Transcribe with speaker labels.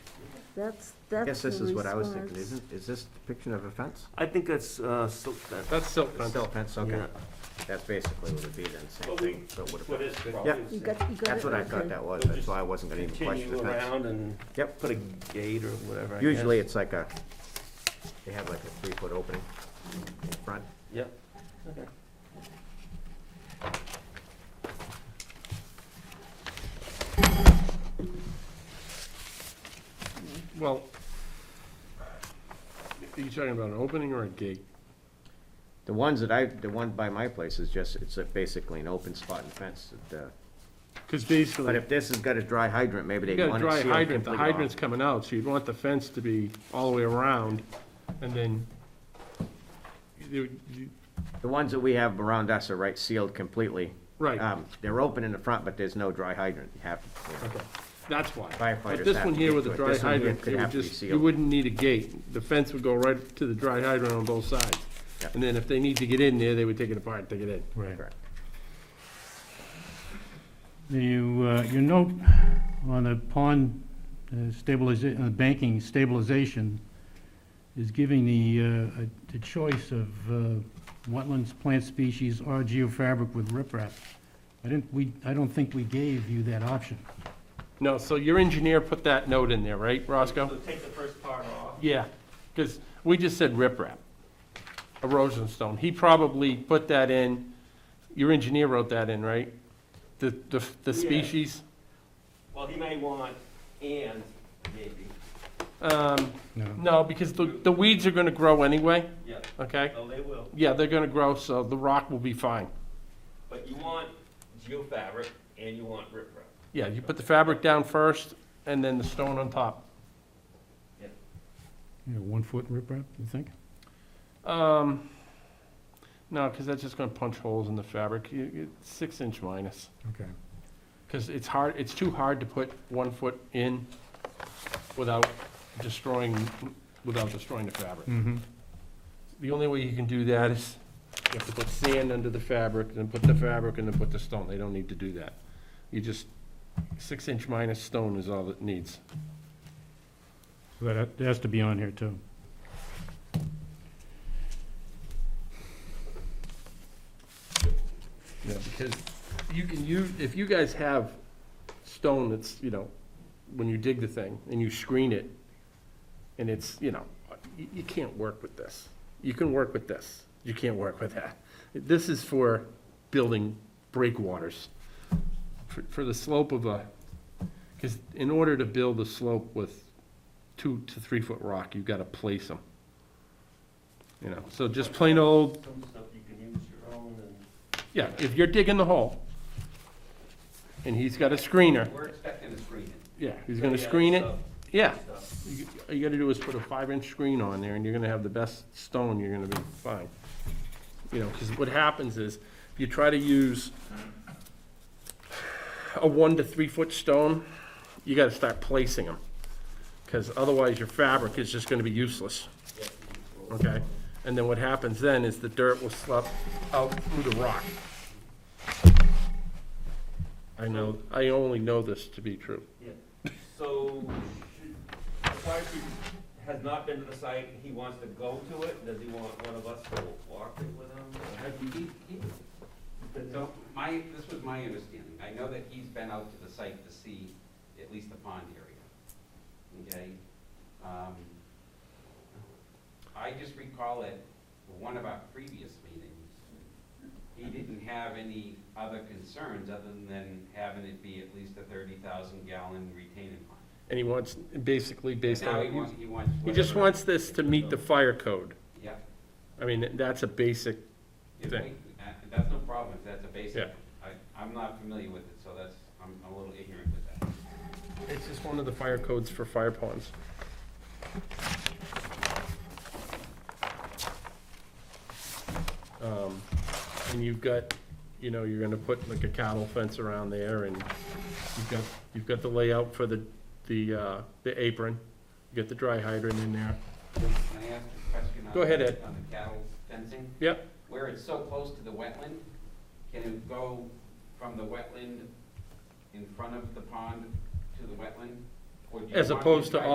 Speaker 1: That's,
Speaker 2: I
Speaker 1: that's
Speaker 2: guess this
Speaker 1: the
Speaker 2: is what I was thinking,
Speaker 1: response.
Speaker 2: isn't, is this depiction of a fence?
Speaker 3: I think that's, uh, so, that,
Speaker 4: That's silk
Speaker 2: It's
Speaker 4: fence.
Speaker 2: Still a fence, okay.
Speaker 3: yeah.
Speaker 2: That's basically what it'd be then, same
Speaker 3: But we-
Speaker 2: thing, but with a
Speaker 3: What
Speaker 2: fence.
Speaker 3: is probably
Speaker 2: Yeah.
Speaker 3: is
Speaker 1: You got, you got it?
Speaker 2: That's what I
Speaker 1: Okay.
Speaker 2: thought that was,
Speaker 3: We'll
Speaker 2: that's
Speaker 3: just
Speaker 2: why I wasn't gonna even question the
Speaker 3: continue
Speaker 2: fence.
Speaker 3: around and
Speaker 2: Yep.
Speaker 3: put a gate or whatever. I guess.
Speaker 2: Usually it's like a, they have like a three-foot opening in front.
Speaker 3: Yep. Okay.
Speaker 4: Well, are you talking about an opening or a gate?
Speaker 2: The ones that I, the one by my place is just, it's a- basically an open spot and fence that, uh,
Speaker 4: Because
Speaker 2: but
Speaker 4: basically,
Speaker 2: if this has got a dry hydrant, maybe
Speaker 4: you
Speaker 2: they
Speaker 4: got a
Speaker 2: want to
Speaker 4: dry
Speaker 2: seal
Speaker 4: hydrant, the
Speaker 2: completely off.
Speaker 4: hydrant's coming out, so you'd want the fence to be all the way around, and then you- you-
Speaker 2: The ones that we have around us are right sealed completely.
Speaker 4: Right.
Speaker 2: Um, they're open in the front, but there's no dry hydrant. You have, you know,
Speaker 4: Okay, that's why.
Speaker 2: Firefighters
Speaker 4: But this
Speaker 2: have
Speaker 4: one
Speaker 2: to
Speaker 4: here
Speaker 2: get
Speaker 4: with
Speaker 2: to
Speaker 4: a
Speaker 2: it.
Speaker 4: dry
Speaker 2: This one here
Speaker 4: hydrant,
Speaker 2: could
Speaker 4: it would
Speaker 2: have to be
Speaker 4: just, you
Speaker 2: sealed.
Speaker 4: wouldn't need a gate. The fence would go right to the dry hydrant on both sides.
Speaker 2: Yeah.
Speaker 4: And then if they need to get in there, they would take it apart, take it in.
Speaker 5: Right.
Speaker 2: Correct.
Speaker 5: You, uh, you note on the pond stabilization, banking stabilization is giving the, uh, a- the choice of uh, wetlands, plant species, or geofabric with riprap. I didn't, we, I don't think we gave you that option.
Speaker 4: No, so your engineer put that note in there, right,
Speaker 3: So
Speaker 4: Roscoe?
Speaker 3: take the first part off.
Speaker 4: Yeah, because we just said riprap, erosion stone. He probably put that in, your engineer wrote that in, right? The, the,
Speaker 3: Yeah.
Speaker 4: the species?
Speaker 3: Well, he may want and maybe,
Speaker 4: Um,
Speaker 5: No.
Speaker 4: no, because the, the weeds are gonna grow anyway,
Speaker 3: yeah,
Speaker 4: okay?
Speaker 3: oh, they will.
Speaker 4: Yeah, they're gonna grow, so the rock will be fine.
Speaker 3: But you want geofabric and you want riprap.
Speaker 4: Yeah, you put the fabric down first, and then the stone on top.
Speaker 5: You know, one-foot riprap, you think?
Speaker 4: Um, no, because that's just gonna punch holes in the fabric, you, you, six inch minus.
Speaker 5: Okay.
Speaker 4: Because it's hard, it's too hard to put one foot in without destroying, without destroying the fabric.
Speaker 5: Mm-hmm.
Speaker 4: The only way you can do that is you have to put sand under the fabric, then put the fabric, and then put the stone. They don't need to do that. You just, six inch minus stone is all it needs.
Speaker 5: So that that has to be on here, too.
Speaker 4: Yeah, because you can use, if you guys have stone that's, you know, when you dig the thing and you screen it, and it's, you know, you, you can't work with this. You can work with this, you can't work with that. This is for building breakwaters. For, for the slope of a, because in order to build a slope with two to three foot rock, you've got to place them. You know, so just plain old
Speaker 3: Some stuff you can use your own and.
Speaker 4: yeah, if you're digging the hole, and he's got a screener,
Speaker 3: We're expecting to screen it.
Speaker 4: yeah, he's gonna
Speaker 3: Yeah,
Speaker 4: screen it,
Speaker 3: stuff,
Speaker 4: yeah.
Speaker 3: stuff.
Speaker 4: You- All you gotta do is put a five-inch screen on there, and you're gonna have the best stone, you're gonna be fine. You know, because what happens is, if you try to use a one to three-foot stone, you gotta start placing them, because otherwise your fabric is just gonna be useless. Okay, and then what happens then is the dirt will slip out through the rock. I know, I only know this to be true.
Speaker 3: Yeah. So, should- the fire chief has not been to the site, he wants to go to it, does he want one of us to walk it with him? or have you-
Speaker 6: He- he- So my, this was my understanding. I know that he's been out to the site to see at least the pond area. Okay? Um, I just recall at one of our previous meetings, he didn't have any other concerns other than having it be at least a thirty thousand gallon retaining pond.
Speaker 4: And he wants, basically based
Speaker 6: Now he
Speaker 4: on,
Speaker 6: wants, he wants.
Speaker 4: he just
Speaker 6: whatever.
Speaker 4: wants this to meet the fire code.
Speaker 6: Yeah.
Speaker 4: I mean, that's a basic,
Speaker 6: If we-
Speaker 4: Thing.
Speaker 6: uh, That's no problem if that's a basic.
Speaker 4: Yeah.
Speaker 6: I, I'm not familiar with it, so that's, I'm a little ignorant with that.
Speaker 4: it's just one of the fire codes for fire ponds. Um, And you've got, you know, you're gonna put like a cattle fence around there and you've got, you've got the layout for the, the, uh, the apron. You got the dry hydrant in there.
Speaker 6: Can I ask a question? on
Speaker 4: Go ahead,
Speaker 6: the-
Speaker 4: Ed.
Speaker 6: On the cattle fencing,
Speaker 4: Yep,
Speaker 6: where it's so close to the wetland, can it go from the wetland in front of the pond to the wetland? Or do you
Speaker 4: As
Speaker 6: want
Speaker 4: opposed to
Speaker 6: the dry